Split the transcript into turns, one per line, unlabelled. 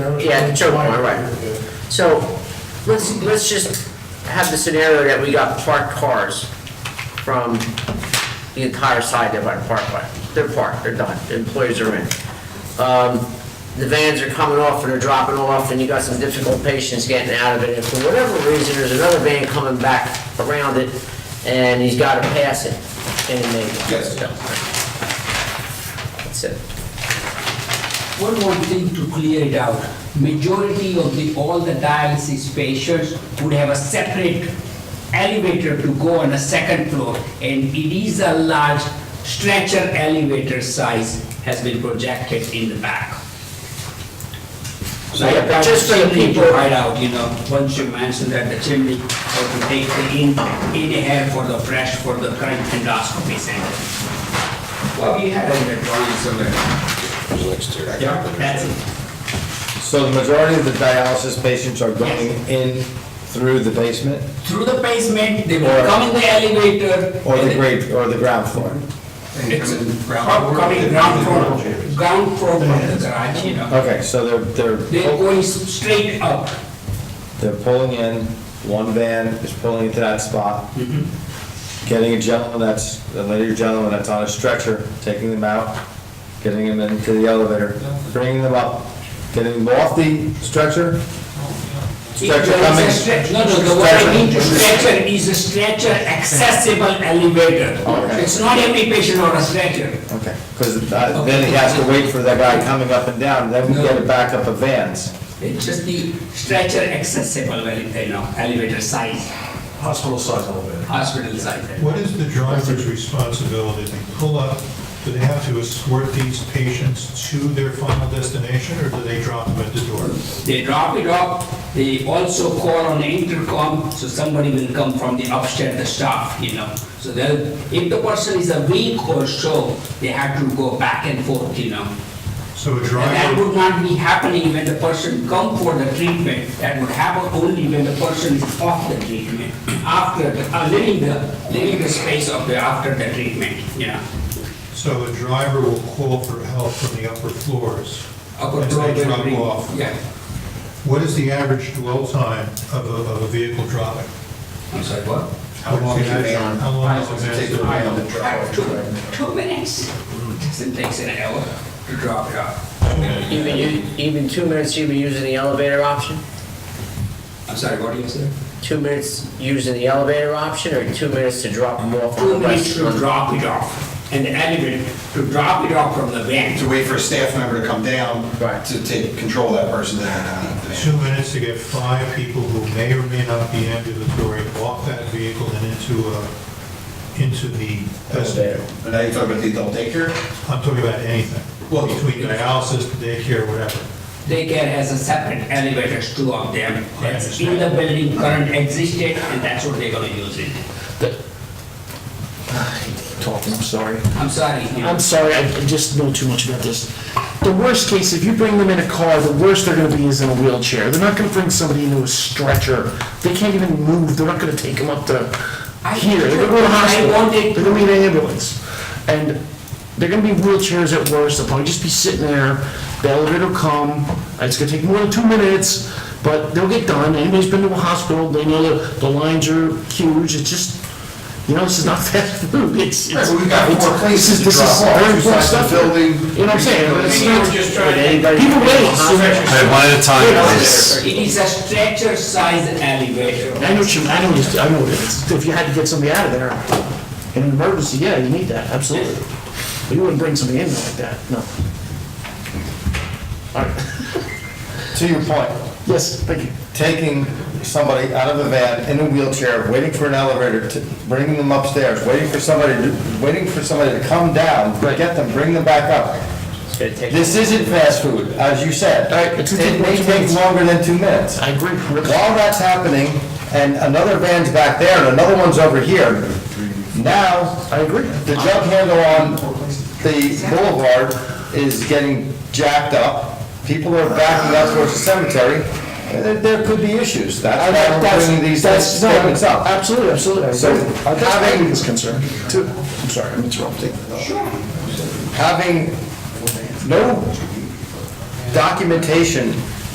Yeah, the choke point, right. So let's, let's just have the scenario that we got parked cars from the entire side there by the parkway. They're parked, they're done, the employees are in. Um, The vans are coming off and they're dropping off and you got some difficult patients getting out of it. And for whatever reason, there's another van coming back around it and he's got to pass it. And they.
Yes.
That's it.
One more thing to clear it out. Majority of the, all the dialysis patients would have a separate elevator to go on a second floor. And it is a large stretcher elevator size has been projected in the back. So
Yeah, but just
just
for the
the chimney to
people-
hide out, you know, once you mention that the chimney, or to take the in, inhale for the fresh, for the current endoscopy center. Well, we had it in the drawing somewhere. Yeah, that's it.
So the majority of the dialysis patients are going in through the basement
through the basement, they will
Or-
come in the elevator.
or
and
the
then-
grade, or the ground floor?
It's com- coming ground floor, ground floor from the garage, you know.
Okay, so they're, they're,
They're
pull-
going s- straight up.
they're pulling in, one van is pulling into that spot,
Mm-hmm.
getting a gentleman that's, a lady or gentleman that's on a stretcher, taking them out, getting them into the elevator, bringing them up, getting them off the
Oh,
stretcher, stretcher
There is a
coming.
stre- No, no, the what I
stretcher-
mean to stretcher is a stretcher accessible elevator.
Okay.
It's not every patient on a stretcher.
Okay, because then he has to wait for that guy coming up and down, then we get it back up of vans.
It's just the stretcher accessible, ele- you know, elevator size,
Hospital size elevator.
hospital size.
What is the driver's responsibility? They pull up, do they have to escort these patients to their final destination, or do they drop them at the door?
They drop it off, they also call on the intercom, so somebody will come from the upstairs, the staff, you know. So they'll, if the person is a week or so, they have to go back and forth, you know.
So a
And that
driver,
would not be happening when the person come for the treatment, that would happen only when the person is off the treatment, after, the- uh, leaving the, leaving the space of the, after the treatment, you know.
so a driver will call for help from the upper floors
Upper
as they drop
floor,
off.
Yeah,
What is the average dwell time of a, of a vehicle dropping?
I'm sorry, what?
How long is it? How long is it?
Two, two minutes. Doesn't take an hour to drop it off.
Even, you- even two minutes, you'd be using the elevator option?
I'm sorry, what do you say?
two minutes using the elevator option or two minutes to drop them off on the
Two minutes
west?
to drop it off, and the elevator to drop it off from the van.
To wait for a staff member to come down.
Right.
To take control of that person. that-
Two minutes to get five people who may or may not be ambulatory off that vehicle and into a, into the vestibule.
And now you're talking about the adult daycare?
I'm talking about anything,
Well-
between dialysis, daycare, whatever.
Daycare has a separate elevators, two of them.
I
That's in the building, current existed, and that's what they're gonna use it.
talking, I'm sorry.
I'm sorry. you know.
I'm sorry, I I just know too much about this. The worst case, if you bring them in a car, the worst they're gonna be is in a wheelchair. They're not gonna bring somebody into a stretcher. They can't even move, they're not gonna take them up to
I-
here. They're gonna go to the
I
hospital,
wanted-
they're gonna be in an ambulance. And they're gonna be wheelchairs at worst, they'll probably just be sitting there, the elevator will come, it's gonna take more than two minutes, but they'll get done. Anybody's been to a hospital, they know the, the lines are huge, it's just, you know, this is not fast food, it's, it's.
Right, but we've got more
it's-
places
this is-
to
this is
drop off,
very
two
important
sides of
stuff.
the building.
You know what I'm saying? It's not-
Anybody-
People wait, so-
Hospital.
one at a time,
It is a stretcher size elevator.
I know what you, I know, what you- I know, what it is. if you had to get somebody out of there in an emergency, yeah, you need that, absolutely. But you wouldn't bring somebody in like that, no. All right,
To your point,
yes, thank you.
taking somebody out of a van in a wheelchair, waiting for an elevator, to bringing them upstairs, waiting for somebody, to- waiting for somebody to come down, get them, bring them back up. This isn't fast food, as you said.
Right, it's-
It may take longer than two minutes.
I agree, really.
While that's happening, and another van's back there, and another one's over here, now,
I agree.
the jump handle on the boulevard is getting jacked up. People are backing up towards the cemetery. There- There could be issues. That's why we're bringing these
That's- that's- no,
statements up.
Absolutely, absolutely, I agree.
So,
That's my
having-
biggest concern, too. I'm sorry, I'm interrupting.
Having no documentation